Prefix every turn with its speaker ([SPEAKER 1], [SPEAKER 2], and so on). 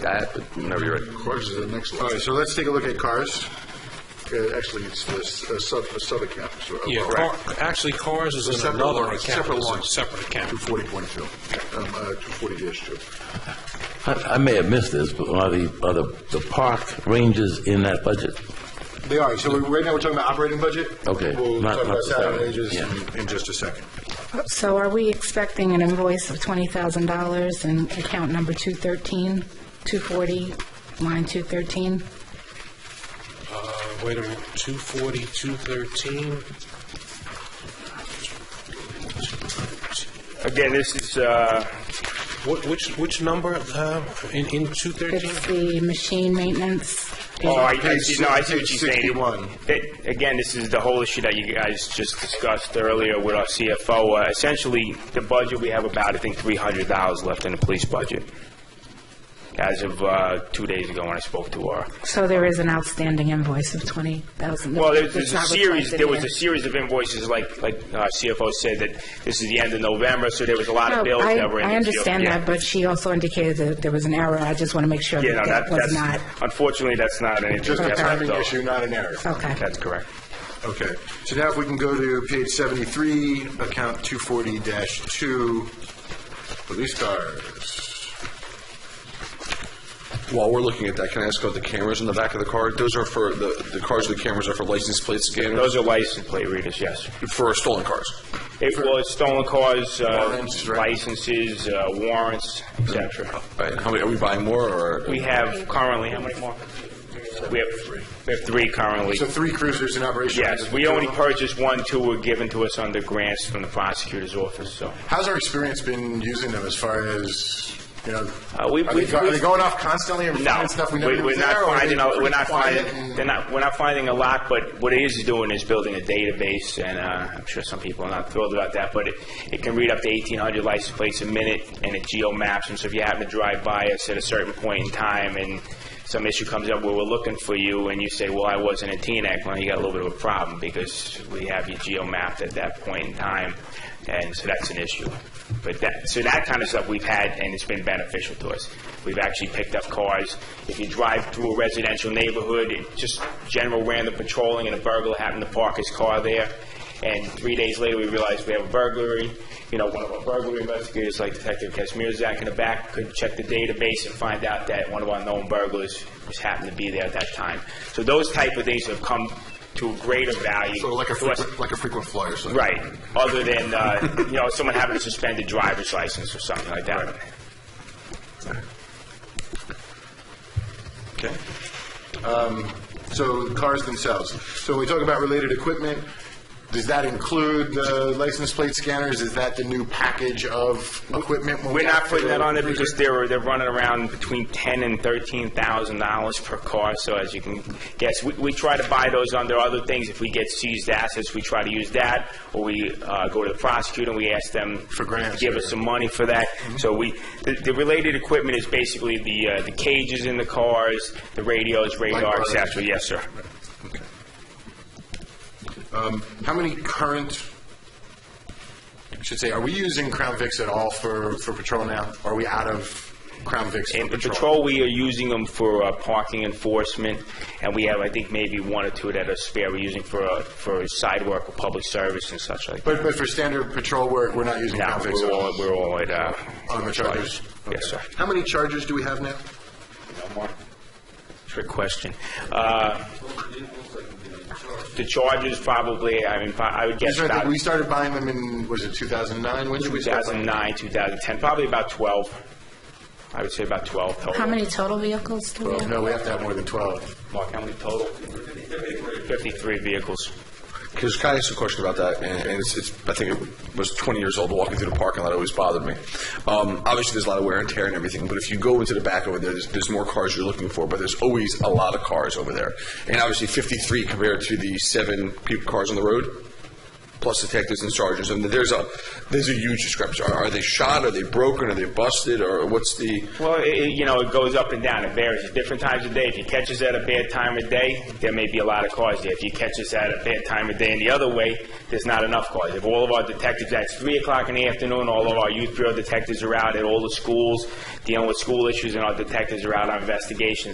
[SPEAKER 1] that, but whenever you're ready.
[SPEAKER 2] Cars is the next. All right, so let's take a look at cars. Uh, Actually, it's the s- a sub, a sub-account. so- uh,
[SPEAKER 3] Yeah,
[SPEAKER 2] well,
[SPEAKER 3] car- actually, cars is in
[SPEAKER 2] Separate
[SPEAKER 3] another
[SPEAKER 2] line,
[SPEAKER 3] account.
[SPEAKER 2] separate
[SPEAKER 3] It's a
[SPEAKER 2] line.
[SPEAKER 3] Separate account.
[SPEAKER 2] 240.2, um, uh, 240-2.
[SPEAKER 4] I I may have missed this, but are the, are the the park rangers in that budget?
[SPEAKER 2] They are, so we- right now, we're talking about operating budget.
[SPEAKER 4] Okay,
[SPEAKER 2] We'll
[SPEAKER 4] not-
[SPEAKER 2] talk
[SPEAKER 4] not
[SPEAKER 2] about
[SPEAKER 4] the
[SPEAKER 2] salary
[SPEAKER 4] salary,
[SPEAKER 2] ranges
[SPEAKER 4] yeah.
[SPEAKER 2] in- in just a second.
[SPEAKER 5] So are we expecting an invoice of $20,000 in account number 213, 240, line 213?
[SPEAKER 3] Uh, Wait a minute, 240, 213?
[SPEAKER 1] Again, this is, uh,
[SPEAKER 3] What- Which, which number uh, in in 213?
[SPEAKER 5] It's the machine maintenance.
[SPEAKER 1] oh, I, I see, no, I see what
[SPEAKER 2] Page
[SPEAKER 1] you're saying.
[SPEAKER 2] 61.
[SPEAKER 1] It- Again, this is the whole issue that you guys just discussed earlier with our CFO. Uh, Essentially, the budget, we have about, I think, three hundred dollars left in the police budget. As of, uh, two days ago when I spoke to her.
[SPEAKER 5] So there is an outstanding invoice of $20,000.
[SPEAKER 1] Well, there's, there's
[SPEAKER 5] It's
[SPEAKER 1] a
[SPEAKER 5] not
[SPEAKER 1] series,
[SPEAKER 5] reflected
[SPEAKER 1] there was
[SPEAKER 5] here.
[SPEAKER 1] a series of invoices, like, like uh, CFO said, that this is the end of November, so there was a lot of
[SPEAKER 5] No,
[SPEAKER 1] bills
[SPEAKER 5] Oh, I,
[SPEAKER 1] that were in
[SPEAKER 5] I
[SPEAKER 1] the queue.
[SPEAKER 5] understand
[SPEAKER 1] Yeah.
[SPEAKER 5] that, but she also indicated that there was an error. I just want to make sure
[SPEAKER 1] Yeah, no,
[SPEAKER 5] that
[SPEAKER 1] that,
[SPEAKER 5] that was not.
[SPEAKER 1] that's, unfortunately, that's not anything.
[SPEAKER 2] Just a
[SPEAKER 1] that's
[SPEAKER 2] timing
[SPEAKER 1] not-
[SPEAKER 2] issue, not an error.
[SPEAKER 5] Okay.
[SPEAKER 1] That's correct.
[SPEAKER 2] Okay, so now if we can go to page 73, account 240-2, police cars.
[SPEAKER 6] While we're looking at that, can I ask about the cameras in the back of the car? Those are for, the, the cars with cameras are for license plate scanners,
[SPEAKER 1] Those are license plate readers, yes.
[SPEAKER 6] for stolen cars.
[SPEAKER 1] It was stolen cars, uh,
[SPEAKER 2] Warrants, right. Mm-hmm.
[SPEAKER 1] licenses, uh, warrants, etc.
[SPEAKER 6] Right, how many, are we buying more, or?
[SPEAKER 1] We have currently, how many more? We have, we have three currently.
[SPEAKER 2] So three cruisers in operation.
[SPEAKER 1] Yes, we only purchased one, two were given to us under grants from the prosecutor's office, so.
[SPEAKER 2] How's our experience been using them as far as, you know,
[SPEAKER 1] Uh, we-
[SPEAKER 2] are
[SPEAKER 1] we-
[SPEAKER 2] they go- are they going off constantly and
[SPEAKER 1] No,
[SPEAKER 2] finding stuff we never
[SPEAKER 1] We-
[SPEAKER 2] knew
[SPEAKER 1] we're
[SPEAKER 2] was there?
[SPEAKER 1] not
[SPEAKER 2] or are
[SPEAKER 1] finding,
[SPEAKER 2] they
[SPEAKER 1] a- we're
[SPEAKER 2] pretty
[SPEAKER 1] not
[SPEAKER 2] quiet
[SPEAKER 1] finding,
[SPEAKER 2] and-
[SPEAKER 1] they're not, we're not finding a lot, but what it is doing is building a database, and uh, I'm sure some people are not thrilled about that, but it, it can read up to 1,800 license plates a minute, and it geo maps them, so if you happen to drive by us at a certain point in time, and some issue comes up where we're looking for you, and you say, well, I wasn't at Teaneck, well, you got a little bit of a problem, because we have you geo mapped at that point in time, and so that's an issue. But that, so that kind of stuff we've had, and it's been beneficial to us. We've actually picked up cars. If you drive through a residential neighborhood, it- just general random patrolling, and a burglar happened to park his car there, and three days later, we realized we have a burglary. You know, one of our burglary investigators, like Detective Kazmierzak in the back, could check the database and find out that one of our known burglars was happened to be there at that time. So those type of things have come to a greater value.
[SPEAKER 2] So like a
[SPEAKER 1] to us.
[SPEAKER 2] frequent, like a frequent flyer, so.
[SPEAKER 1] Right, other than, uh, you know, someone having a suspended driver's license or something like that.
[SPEAKER 2] Okay. Um, So the cars themselves. So when we talk about related equipment, does that include the license plate scanners? Is that the new package of equipment? when we
[SPEAKER 1] We're
[SPEAKER 2] add
[SPEAKER 1] not
[SPEAKER 2] to
[SPEAKER 1] putting
[SPEAKER 2] the
[SPEAKER 1] that on there because
[SPEAKER 2] cruiser?
[SPEAKER 1] they're, they're running around between ten and thirteen thousand dollars per car, so as you can guess, we, we try to buy those under other things. If we get seized assets, we try to use that, or we, uh, go to the prosecutor and we ask them. For
[SPEAKER 2] grants
[SPEAKER 1] Give
[SPEAKER 2] or-
[SPEAKER 1] us some money for that. So we, the, the related equipment is basically the, uh, the cages in the cars, the radios, radar, et
[SPEAKER 2] bars.
[SPEAKER 1] cetera. Yes, sir.
[SPEAKER 2] How many current, I should say, are we using Crown Vics at all for, for patrol now? Are we out of Crown Vics
[SPEAKER 1] In
[SPEAKER 2] for
[SPEAKER 1] the
[SPEAKER 2] patrol?
[SPEAKER 1] patrol, we are using them for uh, parking enforcement, and we have, I think, maybe one or two that are spare. We're using for, uh, for side work or public service and such like that.
[SPEAKER 2] But, but for standard patrol work, we're not using
[SPEAKER 1] No,
[SPEAKER 2] Crown Vics at
[SPEAKER 1] we're all,
[SPEAKER 2] all?
[SPEAKER 1] we're all at, uh...
[SPEAKER 2] On the chargers?
[SPEAKER 1] Yes, sir.
[SPEAKER 2] Okay. How many chargers do we have now?
[SPEAKER 1] No more. Trick question. Uh, The charges probably, I mean, pro- I would
[SPEAKER 2] We
[SPEAKER 1] guess
[SPEAKER 2] started,
[SPEAKER 1] about
[SPEAKER 2] we started buying them in, was it 2009? When did we start? buying
[SPEAKER 1] 2009, 2010, probably about 12. I would say about 12 total.
[SPEAKER 5] How many total vehicles do we
[SPEAKER 2] them?
[SPEAKER 5] have?
[SPEAKER 2] No, we have to have more than 12.
[SPEAKER 1] Mark, how many total? 53 vehicles.
[SPEAKER 6] Because can I ask a question about that? And and it's, it's, I think it was 20 years old, walking through the parking lot always bothered me. Um, obviously, there's a lot of wear and tear and everything, but if you go into the back over there, there's, there's more cars you're looking for, but there's always a lot of cars over there. And obviously, 53 compared to the seven people, cars on the road plus detectives and sergeants. And there's a there's a huge discrepancy. Are, are they shot? Are they broken? Are they busted? Or what's the
[SPEAKER 1] Well, it, it- you know, it goes up and down. It varies. At different times of day, if you catch us at a bad time of day, there may be a lot of cars there. If you catch us at a bad time of day and the other way, there's not enough cars. If all of our detectives, at 3 o'clock in the afternoon, all of our youth bureau detectives are out at all the schools dealing with school issues, and our detectives are out on investigations,